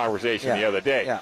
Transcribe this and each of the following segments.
conversation the Yeah, other day. yeah.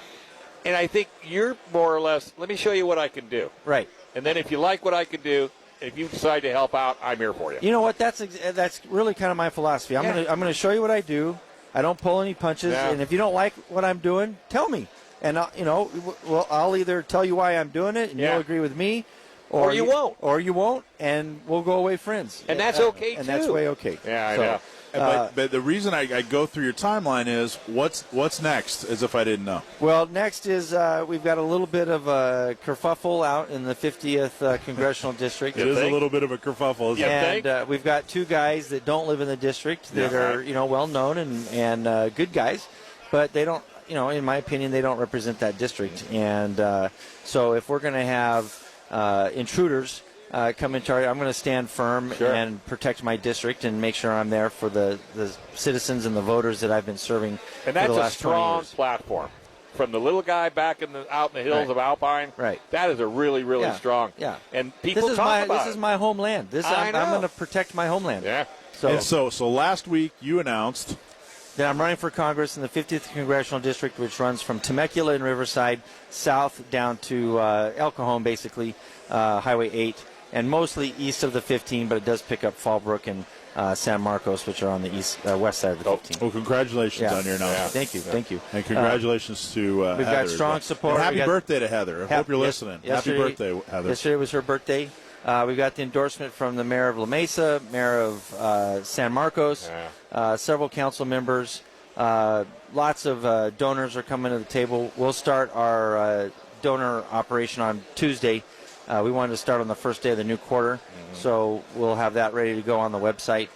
And I think you're more or less, let me show you what I can do. Right. And then if you like what I can do, if you decide to help out, I'm here for you. You know what? That's ex- that's really kind of my philosophy. I'm Yeah. gonna I'm gonna show you what I do. I don't pull any punches, Yeah. and if you don't like what I'm doing, tell me, and I'll, you know, w- well, I'll either tell you why I'm doing it, and Yeah. you'll agree with me, Or you won't. or you won't, and we'll go away friends. And that's Uh, okay, and that's too. way okay. Yeah, I So, know. But, Uh, but the reason I, I go through your timeline is what's what's next, as if I didn't know. Well, next is uh, we've got a little bit of a kerfuffle out in the 50th uh, congressional district. It is think? a little bit of a kerfuffle. Isn't Yeah. it? think? and uh, we've got two guys that don't live in the district that Yeah. are you know well known and and uh, good guys, but they don't you know in my opinion they don't represent that district. And uh, so if we're going to have uh, intruders uh, come into our, I'm going to stand firm Sure. and protect my district and make sure I'm there for the the citizens and the voters that I've been serving And for that's the a last 20 strong years. platform. From the little guy back in the out in the hills Right. of Alpine, Right. That is a really, really Yeah. strong. Yeah. And people This is talk my about this it. is my homeland. This I I'm, I'm know. going to protect my homeland. yeah. So And so so last week you announced that I'm running for Congress in the 50th Congressional District, which runs from Temecula and Riverside south down to uh, El Cajon, basically, uh, Highway 8, and mostly east of the 15, but it does pick up Fallbrook and uh, San Marcos, which are on the east uh, west side of the 15. Well, congratulations Yeah. on your announcement. Thank you, thank you. And congratulations to uh, we've got Heather as strong well. support. And We happy got- birthday to Heather. I hope you're Yes- listening. happy yesterday- birthday, Heather. Yesterday was her birthday. Uh, we got the endorsement from the mayor of La Mesa, mayor of uh, San Marcos, Yeah. uh, several council members. Uh, lots of uh, donors are coming to the table. We'll start our uh, donor operation on Tuesday. Uh, we wanted to start on the first day of the new quarter, Mm-hmm. so we'll have that ready to go on the website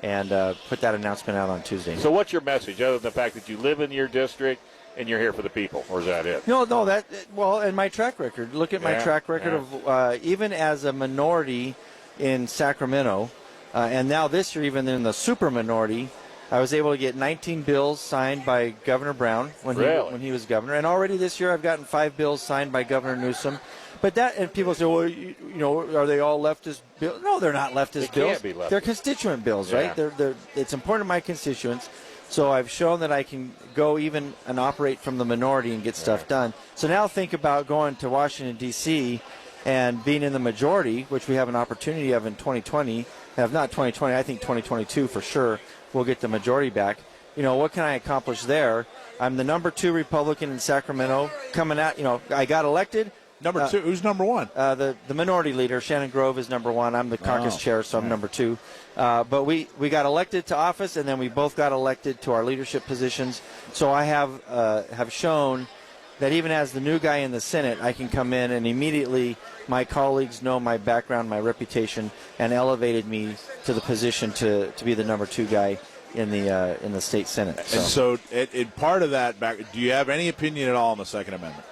and uh, put that announcement out on Tuesday. So what's your message other than the fact that you live in your district and you're here for the people, or is that it? No, no, that well, and my track record. Look at my Yeah, track record yeah. of uh, even as a minority in Sacramento, uh, and now this year even in the super minority, I was able to get 19 bills signed by Governor Brown when Really? he when he was governor, and already this year I've gotten five bills signed by Governor Newsom. But that and people say, well, you, you know, are they all leftist bills? No, they're not leftist They bills. can't be leftist. They're constituent bills, Yeah. right? They're, they're, it's important to my constituents. So I've shown that I can go even and operate from the minority and get stuff done. So now think about going to Washington D.C. and being in the majority, which we have an opportunity of in 2020. Have not 2020, I think 2022 for sure. We'll get the majority back. You know what can I accomplish there? I'm the number two Republican in Sacramento. Coming out, you know, I got elected. number Uh, two, who's number one? uh, the the minority leader Shannon Grove is number one. I'm the caucus Oh, chair, so I'm number two. Uh, but we we got elected to office, and then we both got elected to our leadership positions. So I have uh, have shown that even as the new guy in the Senate, I can come in and immediately my colleagues know my background, my reputation, and elevated me to the position to to be the number two guy in the uh, in the state Senate. So. and so, it, it, part of that back. Do you have any opinion at all on the Second Amendment?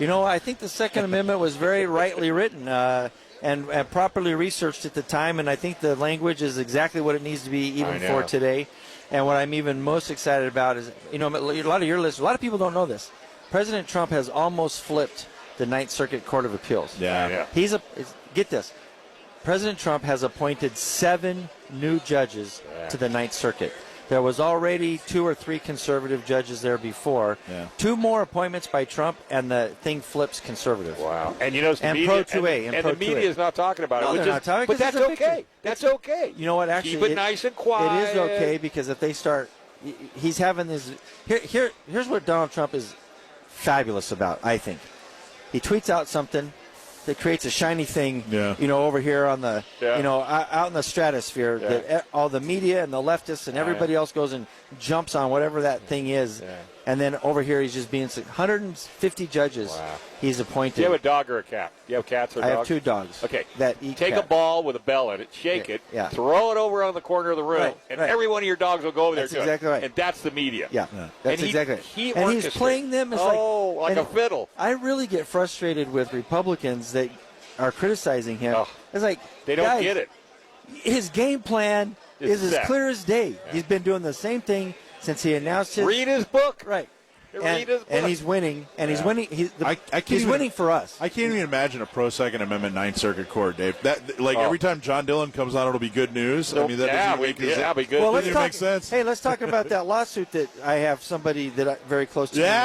You know, I think the Second Amendment was very rightly written uh, and, and properly researched at the time, and I think the language is exactly what it needs to be I even know. for today. And what I'm even most excited about is, you know, a lot of your listeners, a lot of people don't know this. President Trump has almost flipped the Ninth Circuit Court of Appeals. Yeah. Yeah. He's a is- get this. President Trump has appointed seven new judges to the Ninth Circuit. There was already two or three conservative judges there before. Yeah. Two more appointments by Trump, and the thing flips conservative. Wow. And you know, it's the And media, pro 2A, and, and and pro the 2A. media is not talking about No, it. which they're is- not talking but 'cause that's it's a victory. okay. That's okay. You know what? Actually, keep it, nice and quiet. It is okay because if they start, he- he's having this. Here, here, here's what Donald Trump is fabulous about. I think he tweets out something that creates a shiny thing. Yeah. You know, over here on the, Yeah. you know, out out in the stratosphere, Yeah. that e- all the media and the leftists and everybody else goes and jumps on whatever that thing is. Yeah. And then over here, he's just being s- 150 judges Wow. he's appointed. Do you have a dog or a cat? Do you have cats or I dogs? have two dogs. Okay. That eat Take cat. a ball with a bell in it, shake Yeah, it, yeah. throw it over on the corner of the room, Right, and right. every one of your dogs will go over That's there. to exactly it. right. And that's the media. Yeah, Yeah. that's And he- exactly. Right. he and he's orchestrates. playing them as Oh, like like a fiddle. I really get frustrated with Republicans that are criticizing him. Oh. It's like They don't guys, get it. His game plan It's is set. as clear as day. He's been doing the same thing since he announced his Read his book. right. Read and, his and book. he's winning, and he's Yeah. winning. He, the, I- I can't he's even- winning for us. I can't even imagine a pro Second Amendment Ninth Circuit Court, Dave. That like Oh. every time John Dillon comes on, it'll be good news. I mean, that yeah, doesn't we, make yeah, that'd be good. well, Doesn't let's even talk. make sense. Hey, let's talk about that lawsuit that I have somebody that I, very close to. me Yeah,